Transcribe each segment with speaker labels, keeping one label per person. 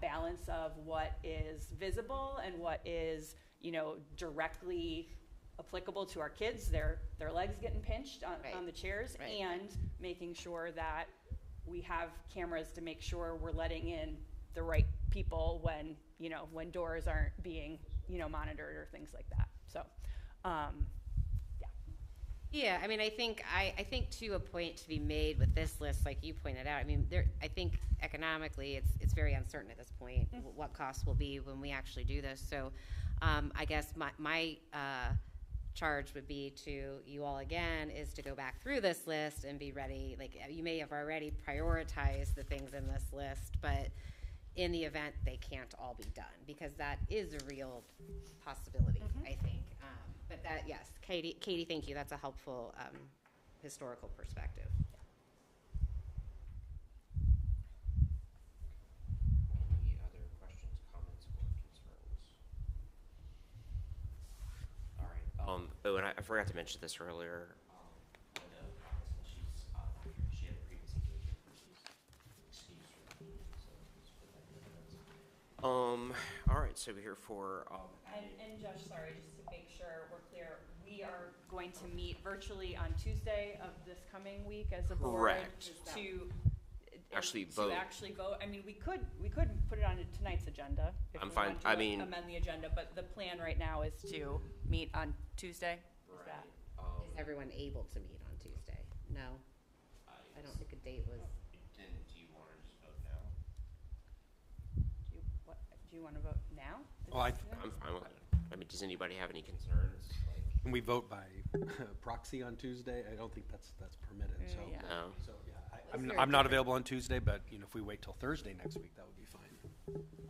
Speaker 1: balance of what is visible and what is, you know, directly applicable to our kids, their, their legs getting pinched on,
Speaker 2: Right.
Speaker 1: on the chairs,
Speaker 2: Right.
Speaker 1: and making sure that we have cameras to make sure we're letting in the right people when, you know, when doors aren't being, you know, monitored or things like that. So, um, yeah.
Speaker 2: Yeah, I mean, I think, I, I think to a point to be made with this list, like you pointed out, I mean, there, I think economically, it's, it's very uncertain at this point, wh- what costs will be when we actually do this, so, um, I guess my, my, uh, charge would be to you all again, is to go back through this list and be ready, like, uh, you may have already prioritized the things in this list, but in the event they can't all be done, because that is a real possibility, I think. Um, But that, yes, Katie, Katie, thank you, that's a helpful um, historical perspective.
Speaker 3: Any other questions, comments, or concerns? All right. Um, oh, and I, I forgot to mention this earlier. Um, Linda, she's, uh, not here. she had a previous engagement, she's excused from the meeting, so just put that in the notes. Um, all right, so we're here for, um,
Speaker 1: And, and Josh, sorry, just to make sure we're clear, we are going to meet virtually on Tuesday of this coming week as a board
Speaker 3: Correct.
Speaker 1: to.
Speaker 3: Actually
Speaker 1: To
Speaker 3: vote.
Speaker 1: actually vote. I mean, we could, we could put it on tonight's agenda. if
Speaker 3: I'm
Speaker 1: we
Speaker 3: fine.
Speaker 1: wanted to
Speaker 3: I mean-
Speaker 1: Amend the agenda, but the plan right now is to meet on Tuesday. Is that-
Speaker 3: um,
Speaker 2: Is everyone able to meet on Tuesday? No? I don't think a date was,
Speaker 3: Then, do you want to just vote now?
Speaker 1: Do you, what, do you wanna vote now? Is
Speaker 4: Well, I-
Speaker 1: this-
Speaker 3: I'm fine with it. I mean, does anybody have any concerns? Like,
Speaker 4: And we vote by proxy on Tuesday. I don't think that's, that's permitted, so.
Speaker 1: Yeah.
Speaker 3: no?
Speaker 4: So, yeah, I-
Speaker 2: Is
Speaker 4: I'm,
Speaker 2: there a
Speaker 4: I'm not
Speaker 2: different-
Speaker 4: available on Tuesday, but, you know, if we wait till Thursday next week, that would be fine.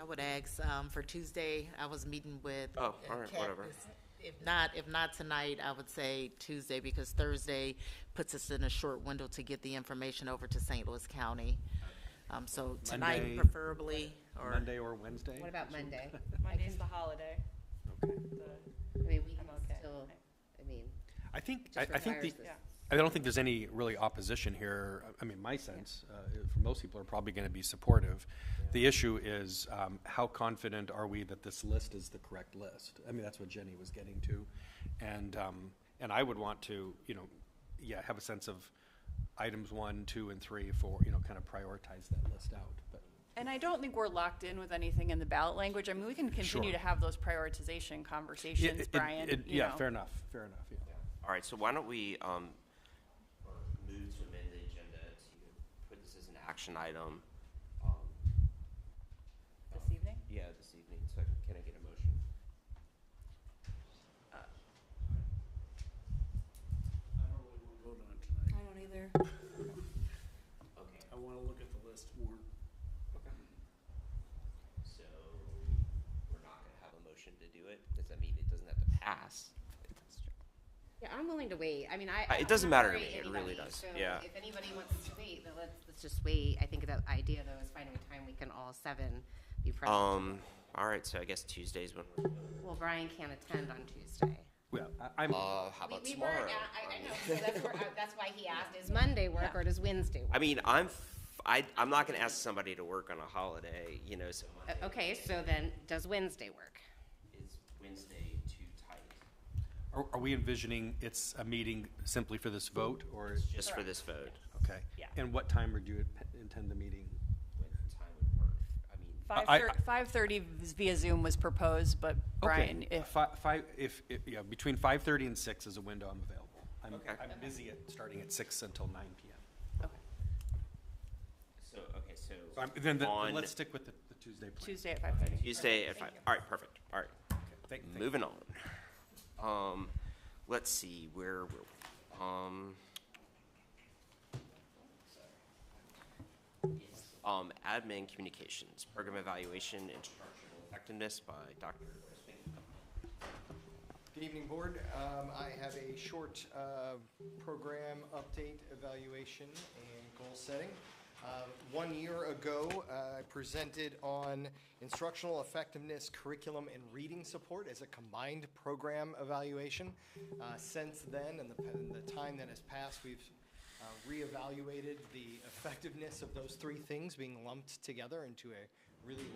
Speaker 5: I would ask, um, for Tuesday, I was meeting with.
Speaker 3: Oh, all right,
Speaker 5: Kat
Speaker 3: whatever.
Speaker 5: this- If not, if not tonight, I would say Tuesday, because Thursday puts us in a short window to get the information over to St. Louis County. Um, so tonight
Speaker 4: Monday-
Speaker 5: preferably, or,
Speaker 4: Monday or Wednesday?
Speaker 2: what about Monday?
Speaker 1: Monday's the holiday,
Speaker 4: Okay.
Speaker 1: the,
Speaker 2: I mean, we
Speaker 1: I'm
Speaker 2: can
Speaker 1: okay.
Speaker 2: still, I mean,
Speaker 4: I think, I,
Speaker 2: just
Speaker 4: I think
Speaker 2: requires
Speaker 4: the,
Speaker 2: this.
Speaker 1: yeah.
Speaker 4: I don't think there's any really opposition here. I- I mean, my sense, uh, for most people are probably going to be supportive. The issue is, um, how confident are we that this list is the correct list? I mean, that's what Jenny was getting to. And, um, and I would want to, you know, yeah, have a sense of items one, two, and three, four, you know, kind of prioritize that list out, but.
Speaker 1: And I don't think we're locked in with anything in the ballot language. I mean, we can continue
Speaker 4: Sure.
Speaker 1: to have those prioritization
Speaker 4: Yeah,
Speaker 1: conversations,
Speaker 4: it-
Speaker 1: Brian,
Speaker 4: it-
Speaker 1: you
Speaker 4: Yeah,
Speaker 1: know.
Speaker 4: fair enough, fair enough, yeah.
Speaker 3: All right, so why don't we, um, or move to amend the agenda to put this as an action item? um,
Speaker 1: This evening?
Speaker 3: Yeah, this evening, so I- can I get a motion?
Speaker 6: I don't really want to vote on it tonight.
Speaker 7: I don't either.
Speaker 3: Okay.
Speaker 6: I want to look at the list more.
Speaker 3: So, we're not gonna have a motion to do it? Does that mean it doesn't have to pass?
Speaker 2: Yeah, I'm willing to wait. I mean, I.
Speaker 3: Uh,
Speaker 2: I'm
Speaker 3: it doesn't
Speaker 2: not
Speaker 3: matter to
Speaker 2: worried
Speaker 3: me. It really
Speaker 2: anybody,
Speaker 3: does.
Speaker 2: so
Speaker 3: Yeah.
Speaker 2: If anybody wants to wait, then let's, let's just wait. I think the idea though is finding a time we can all seven be present.
Speaker 3: Um, all right, so I guess Tuesday's when, we're-
Speaker 2: Well, Brian can't attend on Tuesday.
Speaker 4: Yeah, I- I'm,
Speaker 3: uh, how
Speaker 2: We-
Speaker 3: about
Speaker 2: we were at-
Speaker 3: tomorrow?
Speaker 2: I, I know, so that's where, I- that's why he asked, is Monday work or does Wednesday
Speaker 3: I
Speaker 2: work?
Speaker 3: mean, I'm, f- I, I'm not gonna ask somebody to work on a holiday, you know, so Monday
Speaker 2: Uh, Okay, so then, does Wednesday work?
Speaker 3: is Wednesday too tight?
Speaker 4: are are we envisioning it's a meeting simply for this vote, or?
Speaker 3: Just for this vote?
Speaker 4: Okay.
Speaker 1: Yeah.
Speaker 4: And what time would you p- intend the meeting?
Speaker 3: What time would work? I mean,
Speaker 1: Five
Speaker 4: I-
Speaker 1: thir- five thirty via Zoom was proposed, but Brian,
Speaker 4: Okay,
Speaker 1: if,
Speaker 4: Fi- Five, if, if- yeah, between five-thirty and six is a window I'm available. I'm,
Speaker 3: Okay.
Speaker 4: I'm busy at, starting at six until nine PM.
Speaker 3: so, okay, so.
Speaker 4: So I'm, then, the-
Speaker 3: on
Speaker 4: let's stick with the the Tuesday plan.
Speaker 1: Tuesday at five thirty.
Speaker 3: Tuesday at five, all right, perfect, all right.
Speaker 4: Okay, thank- thank you.
Speaker 3: Moving on. Um, let's see, where were we? Um. Um, admin communications, program evaluation, instructional effectiveness by Dr.
Speaker 8: Good evening, Board. Um, I have a short uh, program update, evaluation, and goal setting. Um, One year ago, uh, I presented on instructional effectiveness, curriculum, and reading support as a combined program evaluation. Uh, Since then, and the and the time that has passed, we've uh, reevaluated the effectiveness of those three things being lumped together into a really